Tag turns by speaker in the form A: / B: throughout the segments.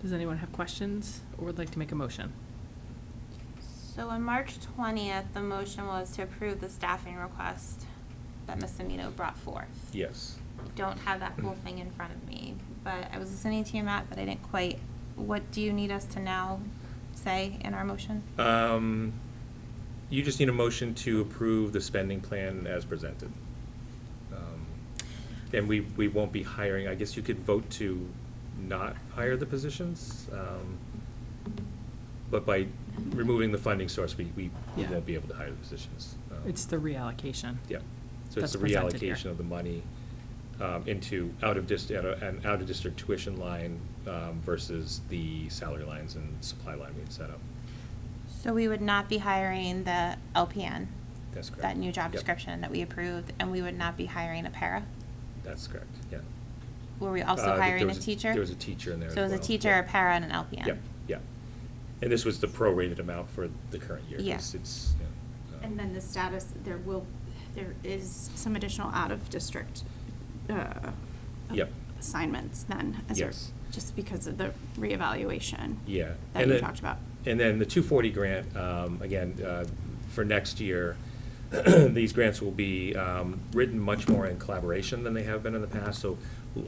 A: Does anyone have questions or would like to make a motion?
B: So on March twentieth, the motion was to approve the staffing request that Ms. Amino brought forth.
C: Yes.
B: Don't have that whole thing in front of me, but I was listening to you, Matt, but I didn't quite, what do you need us to now say in our motion?
C: Um, you just need a motion to approve the spending plan as presented. Um, And we, we won't be hiring, I guess you could vote to not hire the positions. um, But by removing the funding source, we, we we
A: Yeah.
C: won't be able to hire the positions. Um,
A: It's the reallocation.
C: Yeah, so it's
A: That's
C: the
A: presented here.
C: reallocation of the money um, into out of dist, out of- an out-of-district tuition line um, versus the salary lines and supply line we had set up.
B: So we would not be hiring the LPN?
C: That's correct.
B: That new job
C: Yep.
B: description that we approved, and we would not be hiring a para?
C: That's correct, yeah.
B: Were we
C: Uh,
B: also
C: there
B: hiring a
C: was
B: teacher?
C: There was a teacher in there as
B: So it was a
C: well,
B: teacher,
C: yeah.
B: a para, and an LPN?
C: Yeah, yeah. And this was the prorated amount for the current year. 'cause
B: Yeah.
C: It's, yeah, um,
D: And then the status, there will, there is some additional out-of-district uh,
C: Yep.
D: assignments then, as a-
C: Yes.
D: just because of the reevaluation.
C: Yeah.
D: That
C: and
D: you
C: then-
D: talked about.
C: And then the 240 grant, um, again, uh, for next year, these grants will be um, written much more in collaboration than they have been in the past. So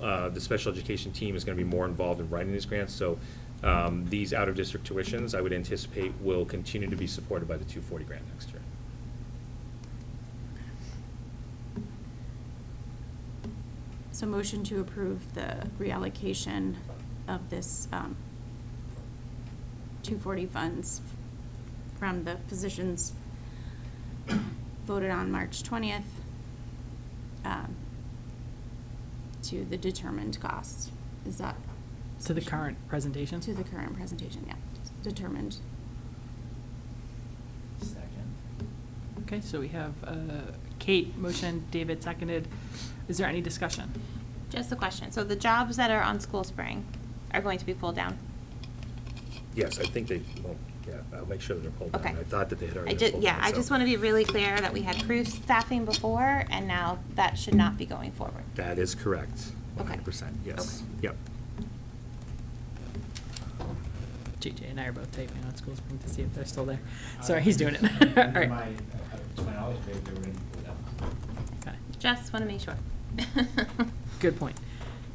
C: uh, the special education team is going to be more involved in writing these grants. So um, these out-of-district tuitions, I would anticipate, will continue to be supported by the 240 grant next year.
D: So motion to approve the reallocation of this um, 240 funds from the positions voted on March 20th um, to the determined costs. Is that?
A: To the current presentation?
D: To the current presentation, yeah, determined.
E: Second.
A: Okay, so we have uh, Kate motion, David seconded. Is there any discussion?
B: Just a question, so the jobs that are on School Spring are going to be pulled down?
C: Yes, I think they, well, yeah, I'll make sure they're pulled down.
B: Okay.
C: I thought that they had
B: I
C: already
B: ju-
C: been pulled
B: Yeah,
C: down,
B: I
C: so
B: just want to be really clear that we had proof staffing before, and now that should not be going forward.
C: That is correct,
B: Okay.
C: 100%, yes.
B: Okay.
C: Yep.
A: JJ and I are both typing on School Spring to see if they're still there. Sorry, he's doing it. All
E: To my,
A: right.
E: to my knowledge, they, they were in
A: Okay.
B: Just want to make sure.
A: Good point.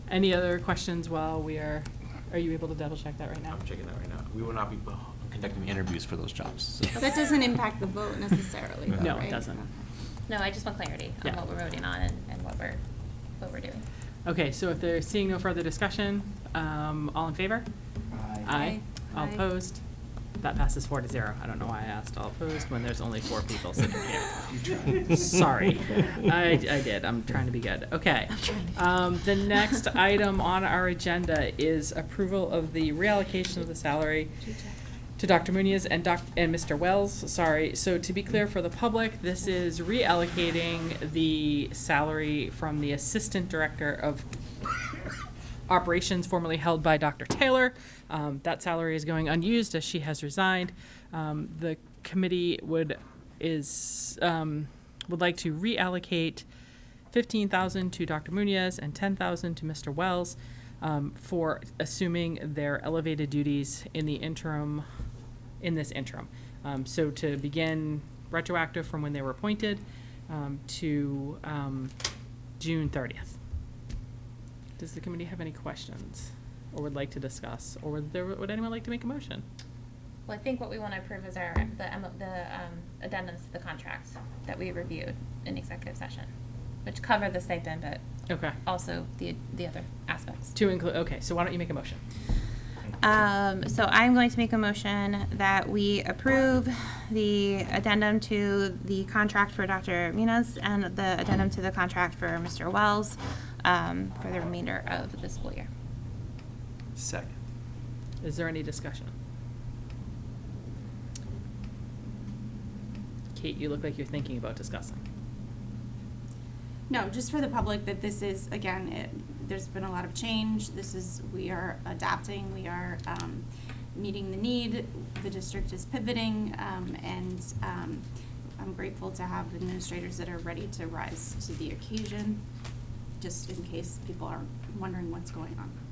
A: Any other questions while we are, are you able to double check that right now?
F: I'm checking that right now. We will not be uh, conducting interviews for those jobs. so.
D: That doesn't impact the vote necessarily, though,
A: No, it
D: right?
A: doesn't.
B: No, I just want clarity on
A: Yeah.
B: what we're voting on and and what we're, what we're doing.
A: Okay, so if there's seeing no further discussion, um, all in favor?
E: Aye.
A: All
B: Aye.
A: opposed? That passes four to zero. I don't know why I asked all opposed when there's only four people sitting here. Sorry. I, I did. I'm trying to be good. Okay. Um, the next item on our agenda is approval of the reallocation of the salary to Dr. Muniz and Doc, and Mr. Wells, sorry. So to be clear for the public, this is reallocating the salary from the Assistant Director of Operations formerly held by Dr. Taylor. Um, that salary is going unused as she has resigned. Um, the committee would, is, um, would like to reallocate fifteen thousand to Dr. Munoz and ten thousand to Mr. Wells um, for assuming their elevated duties in the interim, in this interim. Um, so to begin retroactive from when they were appointed um, to um, June thirtieth. Does the committee have any questions or would like to discuss, or would there, would anyone like to make a motion?
B: Well, I think what we want to approve is our, the, M- the um, addendums to the contracts that we reviewed in executive session, which cover the stipend, but
A: Okay.
B: also the, the other aspects.
A: To include, okay, so why don't you make a motion?
B: Um, so I'm going to make a motion that we approve the addendum to the contract for Dr. Munoz and the addendum to the contract for Mr. Wells, um, for the remainder of the school year.
F: Second.
A: Is there any discussion? Kate, you look like you're thinking about discussing.
D: No, just for the public, that this is, again, it, there's been a lot of change, this is, we are adapting, we are, um, meeting the need, the district is pivoting, um, and, um, I'm grateful to have administrators that are ready to rise to the occasion, just in case people are wondering what's going on.